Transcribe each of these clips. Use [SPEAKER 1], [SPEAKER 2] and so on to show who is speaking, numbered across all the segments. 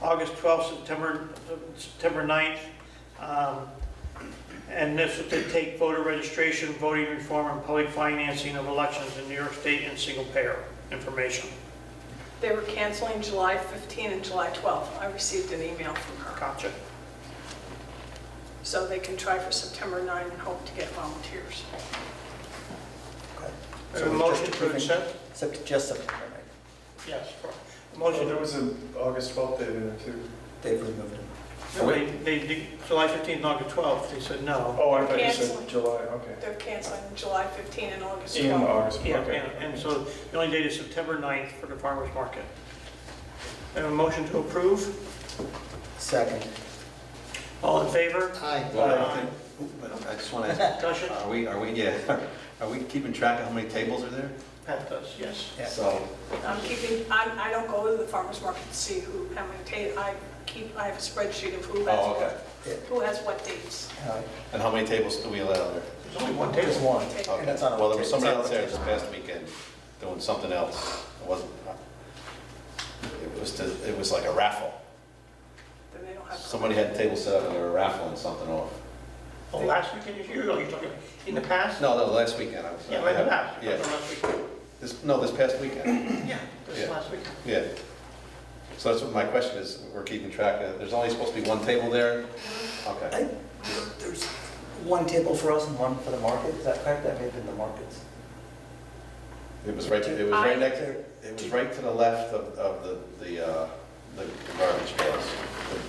[SPEAKER 1] August 12th, September, September 9th. Um, And this would take voter registration, voting reform, and public financing of elections in New York State and single payer information.
[SPEAKER 2] They were canceling July 15 and July 12. I received an email from her.
[SPEAKER 1] Gotcha.
[SPEAKER 2] So they can try for September 9 and hope to get volunteers.
[SPEAKER 3] Okay.
[SPEAKER 1] A
[SPEAKER 3] So
[SPEAKER 1] motion
[SPEAKER 3] just
[SPEAKER 1] to
[SPEAKER 3] approving-
[SPEAKER 1] accept?
[SPEAKER 3] Sept- Just September 9th.
[SPEAKER 1] Yes. A
[SPEAKER 4] Oh,
[SPEAKER 1] Motion
[SPEAKER 4] there
[SPEAKER 1] to
[SPEAKER 4] was an August 12th date in it too.
[SPEAKER 3] They've removed it.
[SPEAKER 1] No, They, they, did July 15th and August 12th, they said no.
[SPEAKER 4] Oh, I thought you
[SPEAKER 2] Cancel.
[SPEAKER 4] said July, okay.
[SPEAKER 2] They're canceling July 15 and August
[SPEAKER 4] In
[SPEAKER 2] 12.
[SPEAKER 4] August, okay.
[SPEAKER 1] Yeah, and, and so the only date is September 9th for the farmer's market. I have a motion to approve.
[SPEAKER 3] Second.
[SPEAKER 1] All in favor?
[SPEAKER 5] Well, I think- but I just want to ask,
[SPEAKER 1] Discussion?
[SPEAKER 5] are we, are we, yeah, are we keeping track of how many tables are there?
[SPEAKER 1] Pat does, yes.
[SPEAKER 3] Yeah.
[SPEAKER 5] So,
[SPEAKER 2] I'm keeping, I, I don't go to the farmer's market to see who, how many days, I keep, I have a spreadsheet of who has
[SPEAKER 5] oh, okay.
[SPEAKER 2] what, who has what dates.
[SPEAKER 3] Uh,
[SPEAKER 5] And how many tables do we allow there?
[SPEAKER 1] There's only one
[SPEAKER 3] Just
[SPEAKER 1] table.
[SPEAKER 3] one.
[SPEAKER 2] Okay.
[SPEAKER 5] Okay.
[SPEAKER 3] And that's on our
[SPEAKER 5] Well, there was
[SPEAKER 3] table.
[SPEAKER 5] somebody
[SPEAKER 3] It's
[SPEAKER 5] else
[SPEAKER 3] on our
[SPEAKER 5] there this
[SPEAKER 3] table.
[SPEAKER 5] past weekend doing something else. It wasn't, it was, to- it was like a raffle.
[SPEAKER 2] Then they don't have.
[SPEAKER 5] Somebody had a table set up and they were raffling something off.
[SPEAKER 1] Oh, last weekend is you, you're talking, in the past?
[SPEAKER 5] No, no, last weekend. I was-
[SPEAKER 1] Yeah, in the past.
[SPEAKER 5] Yeah.
[SPEAKER 1] Last weekend.
[SPEAKER 5] This, no, this past weekend,
[SPEAKER 1] Yeah, this is
[SPEAKER 5] Yeah.
[SPEAKER 1] last weekend.
[SPEAKER 5] yeah. So that's what my question is, we're keeping track of, there's only supposed to be one table there? Okay.
[SPEAKER 3] I- There's one table for us and one for the market, is that correct? That may have been the markets.
[SPEAKER 5] It was right, it was
[SPEAKER 2] I-
[SPEAKER 5] right next, it was right to the left of, of the, the, uh, the garbage bales,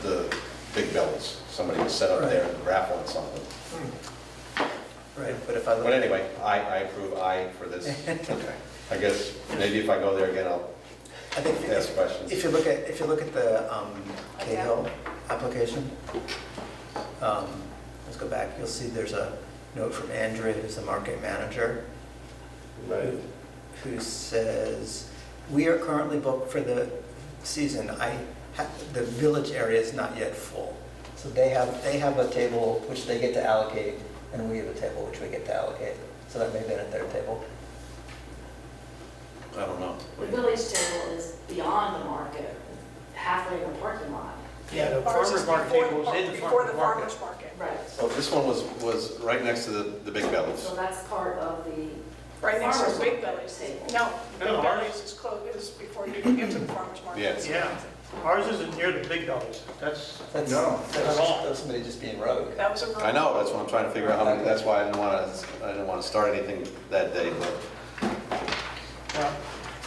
[SPEAKER 5] the, the big bills. Somebody was set up there and raffling something.
[SPEAKER 2] Hmm.
[SPEAKER 3] Right, but if I
[SPEAKER 5] But
[SPEAKER 3] look,
[SPEAKER 5] anyway, I, I approve I for this. Okay. I guess maybe if I go there again, I'll
[SPEAKER 3] I think
[SPEAKER 5] ask
[SPEAKER 3] if-
[SPEAKER 5] questions.
[SPEAKER 3] if you look at, if you look at the um, Cahill application, um, let's go back, you'll see there's a note from Andrea, who's the market manager,
[SPEAKER 4] Right.
[SPEAKER 3] who says, "We are currently booked for the season. I, ha- the village area is not yet full." So they have, they have a table which they get to allocate, and we have a table which we get to allocate. So that may have been at their table.
[SPEAKER 5] I don't know.
[SPEAKER 6] The village table is beyond the market, halfway in the parking lot.
[SPEAKER 1] Yeah, the
[SPEAKER 2] Ours is
[SPEAKER 1] farmer's market
[SPEAKER 2] before
[SPEAKER 1] table
[SPEAKER 2] the-
[SPEAKER 1] was in the
[SPEAKER 2] Before the
[SPEAKER 1] farmer's market.
[SPEAKER 2] farmer's market.
[SPEAKER 6] Right.
[SPEAKER 5] Oh, this one was, was right next to the, the big
[SPEAKER 6] So
[SPEAKER 5] bills.
[SPEAKER 6] that's part of the.
[SPEAKER 2] Right next to
[SPEAKER 6] farmer's
[SPEAKER 2] Big
[SPEAKER 6] market
[SPEAKER 2] Belly's.
[SPEAKER 6] table.
[SPEAKER 2] No, Big
[SPEAKER 1] No, ours-
[SPEAKER 2] Belly's is closed, it was before you could get to the farmer's market.
[SPEAKER 5] Yes.
[SPEAKER 1] Yeah, ours isn't near the big dogs. That's,
[SPEAKER 3] That's,
[SPEAKER 4] No.
[SPEAKER 3] that's that's somebody just being rogue.
[SPEAKER 2] That was a.
[SPEAKER 5] I know, that's what I'm trying to figure out, how many- that's why I didn't want to, I didn't want to start anything that day, but,
[SPEAKER 1] yeah,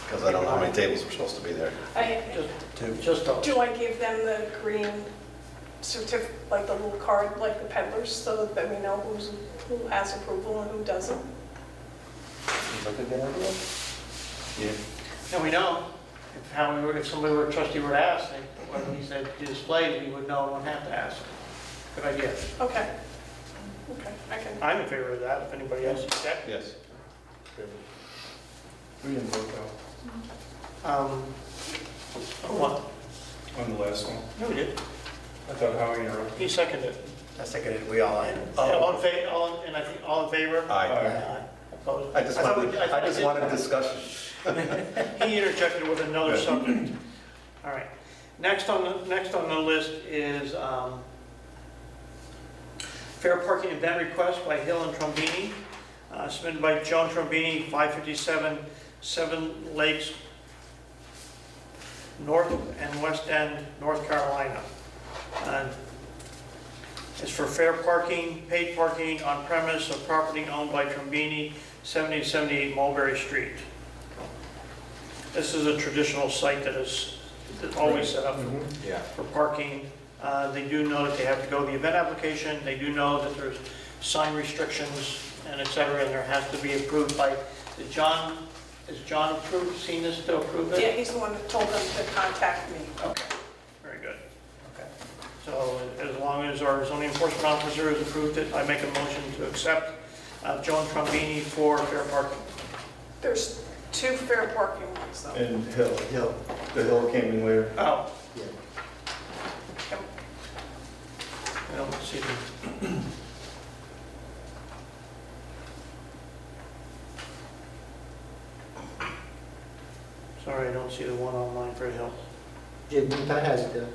[SPEAKER 5] because I don't know how many tables were supposed to be there.
[SPEAKER 2] I-
[SPEAKER 1] just,
[SPEAKER 3] Two.
[SPEAKER 1] just dogs.
[SPEAKER 2] Do I give them the green certificate, like the little card, like the peddlers, so that we know who's, who has approval and who doesn't?
[SPEAKER 3] Seems like a good idea.
[SPEAKER 5] Yeah.
[SPEAKER 1] And we know, if how, we were- if somebody were, trustee were to ask, they- when he said display, we would know, and wouldn't have to ask. Good idea.
[SPEAKER 2] Okay. Okay, I can,
[SPEAKER 1] I'm in favor of that, if anybody else is that.
[SPEAKER 5] Yes.
[SPEAKER 4] We didn't vote though,
[SPEAKER 1] Um, oh, what?
[SPEAKER 4] on the last one.
[SPEAKER 1] No, we did.
[SPEAKER 4] I thought Howie interrupted.
[SPEAKER 1] He seconded.
[SPEAKER 3] I seconded, we all in.
[SPEAKER 1] All in fa, all, in- and I think, all in favor?
[SPEAKER 5] Oh. Aye.
[SPEAKER 1] Aye. Opposed?
[SPEAKER 5] I just
[SPEAKER 1] thought
[SPEAKER 5] wanted,
[SPEAKER 1] we-
[SPEAKER 5] I
[SPEAKER 1] thought
[SPEAKER 5] just
[SPEAKER 1] did-
[SPEAKER 5] wanted discussion.
[SPEAKER 1] He interjected with another
[SPEAKER 5] Yeah.
[SPEAKER 1] subject. All right. Next on, the next on the list is um, fair parking event request by Hill and Trombini, uh, submitted by John Trombini, 557 Seven Lakes North and West End, North Carolina. Uh, It's for fair parking, paid parking on premise of property owned by Trombini, 7078 Mulberry Street. This is a traditional site that is that's always set up for-
[SPEAKER 5] Yeah.
[SPEAKER 1] for parking. Uh, They do know that they have to go to the event application, they do know that there's sign restrictions and et cetera, and there has to be approved by, did John, is John approved, seen this to approve it?
[SPEAKER 2] yeah, he's the one that told them to contact me.
[SPEAKER 1] Okay, very good.
[SPEAKER 3] Okay.
[SPEAKER 1] So as long as our zoning enforcement officer has approved it, I make a motion to accept uh, Joan Trombini for fair parking.
[SPEAKER 2] There's two fair parking ones though.
[SPEAKER 4] And Hill. Hill. The Hill came in later.
[SPEAKER 1] Oh.
[SPEAKER 4] Yeah.
[SPEAKER 1] I don't see them. Sorry, I don't see the one online for Hill.
[SPEAKER 7] Jim, that has the